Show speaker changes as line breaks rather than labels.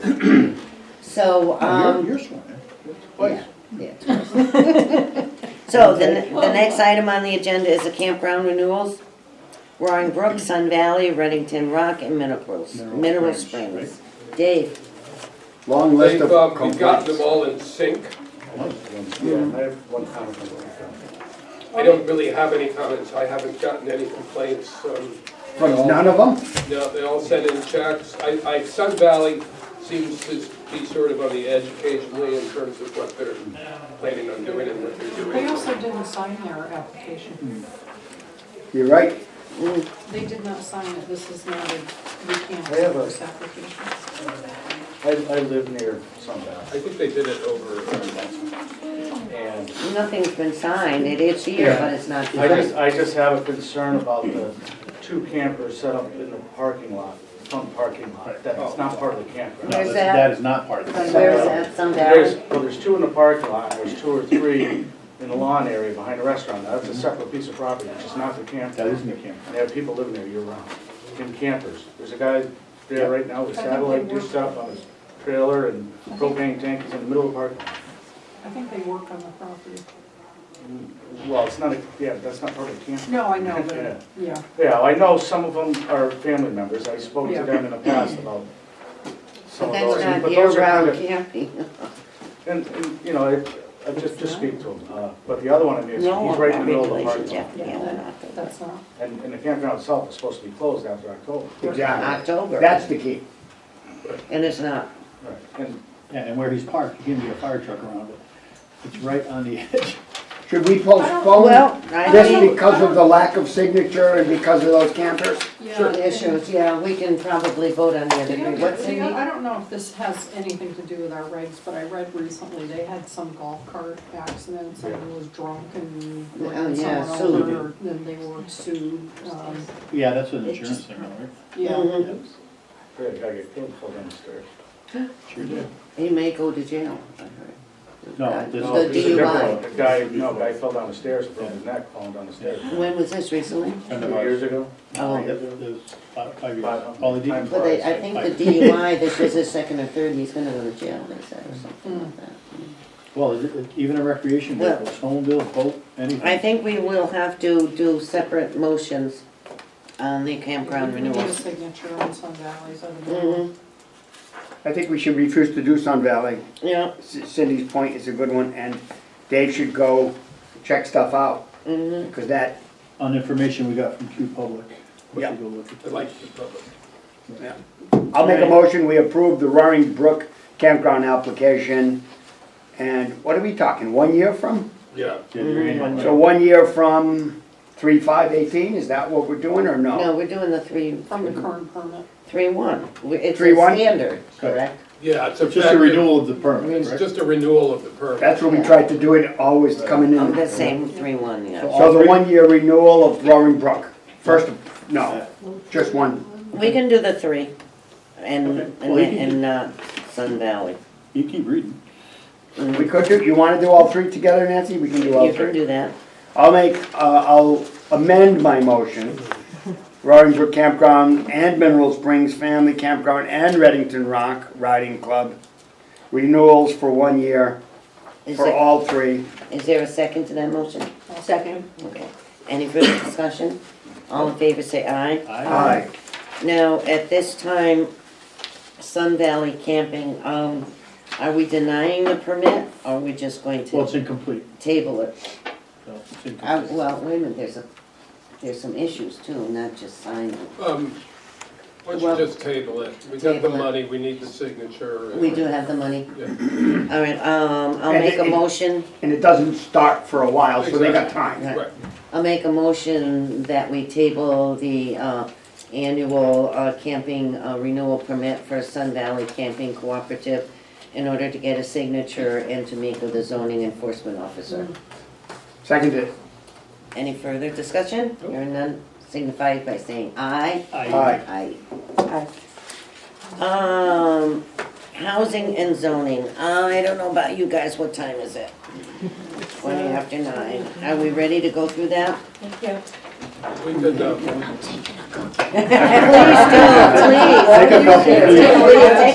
So,
Oh,
No,
um.
Oh, You're, you're sworn in, twice.
yeah, yeah. So the, ne- the next item on the agenda is the campground renewals. Roaring Brook, Sun Valley, Reddington Rock, and Mineral Springs,
Mineral
Mineral
Springs, right.
Springs. Dave,
Long list
They've,
of
um, we've got them
complaints.
all in sync.
Yeah, I have one comment on that.
I don't really have any comments. I haven't gotten any complaints. Um,
From none of them?
No, they all sent in checks. I, I, Sun Valley seems to be sort of on the edge occasionally in terms of what they're planning on doing and what they're
They
doing.
also didn't sign their application.
You're right.
They did not sign it, this is not a, we can't
They have
accept
a-
this application.
I, I live near Sundown,
I think they did it over, uh,
and
nothing's been signed, it is here, but it's not
I just,
signed.
I just have a concern about the two campers set up in the parking lot, front parking lot, that is not part of the campground.
Where's
No,
that?
That is not part of
But
this.
where's that, Sun
There's,
Valley?
well, there's two in the parking lot, and there's two or three in the lawn area behind the restaurant, now that's a separate piece of property, it's just not the
That
campground.
isn't a campground.
And they have people living there year-round, in campers. There's a guy there right now with satellite dished up on his trailer and propane tank, he's in the middle of the parking lot.
I think they work on the property.
Well, it's not, a yeah, that's not part of the camp.
No, I know, but, yeah,
Yeah, I know some of them are family members, I spoke to
Yeah.
them in the past about some
But
of those.
that's not
but those are kind
year-round
of-
camping.
And, and, you know, it- I just, just speak to him, uh, but the other one, I mean, he's
No one
right in the
got
middle of the
regulations
parking
after
lot.
the
yeah,
other
that-
October.
that's not,
And, and the campground itself is supposed to be closed after October.
Exactly.
October.
That's the key.
And it's not.
Right. And
Yeah, and where he's parked, you can get a fire truck around it. It's right on the edge.
Should we
Well,
postpone
I
this
think
because of the lack of signature and because of those campers?
yeah.
issues, yeah, we can probably vote on the other.
The
three.
other-
What's in
the other- I
the,
don't know if this has anything to do with our regs, but I read recently they had some golf cart accident, someone was drunk and
Oh,
ran
yeah,
someone
sued.
over, then they were sued, um,
Yeah, that's an insurance thing, right?
yeah.
the guy got killed falling down the stairs.
Sure did.
he may go to jail, I heard. Uh,
No, this-
No,
The
it's a different
DUI.
one. The guy, no, guy fell down the stairs, broke his neck, falling down the stairs.
When was this recently?
Kind
Two
of ours.
years ago.
Oh.
Yep, it was five, five years.
Five.
Well, he didn't,
Well, they, I think the DUI, this is his second or third, he's gonna go to jail, they said, or something like that.
well, it- it- even a recreation
Well-
vehicle, snowmobile, boat, anything.
I think we will have to do separate motions on the campground
We need a
renewals.
signature on some valleys, I don't know.
Mhm,
I think we should refuse to do Sun Valley.
yeah,
C- Cindy's point is a good one, and Dave should go check stuff out,
mhm.
because that,
On information we got from Q Public. We
Yeah.
should go look at
I
those.
like the public.
I'll make a motion, we approve the Roaring Brook campground application. And what are we talking, one year from?
Yeah.
Yeah, your annual-
So one year from three, five, eighteen, is that what we're doing, or
No,
no?
we're doing the three,
From the current permit.
three one, We- it's a
Three one?
standard, correct?
Yeah, it's
It's just a
effective-
renewal of the permit,
It's
right?
just a renewal of the permit.
That's what we tried to do it, always coming
Oh, the
in.
same three one, yeah.
So the one-year renewal of Roaring Brook, first, of- no, just one.
We can do the three, and,
Well,
and,
you can-
and, uh, Sun Valley.
You keep reading.
We could do, you wanna do all three together, Nancy? We can do all
You
three.
can do that.
I'll make, uh, I'll amend my motion. Roaring Brook Campground and Mineral Springs Family Campground and Reddington Rock Riding Club. Renewals for one year
Is
for
it-
all three.
Is there a second to that motion?
Second.
Okay. Any further discussion? All in favor, say aye.
Aye.
Now, at this time, Sun Valley Camping, um, are we denying the permit? Or are we just going
Well, it's
to
incomplete,
table it?
so it's
Uh,
incomplete.
well, wait a minute, there's a, there's some issues too, not just signing.
Um, Why don't
Well-
you just table it? We got the
Table it.
money, we need the signature.
We do have the money.
Yeah.
All right, um, I'll
And
make a
it-
motion,
And it doesn't start for a while, so they got time.
Right.
I'll make a motion that we table the, uh, annual, uh, camping uh, renewal permit for Sun Valley Camping Cooperative in order to get a signature and to meet with the zoning enforcement officer.
Seconded.
Any further discussion? Hearing none, signify by saying aye.
Aye.
Aye.
Aye. Um, housing and zoning, I don't know about you guys, what time is it? Twenty after nine, are we ready to go through that?
We could, um,
Please do, please.
Take a couple.
Take a-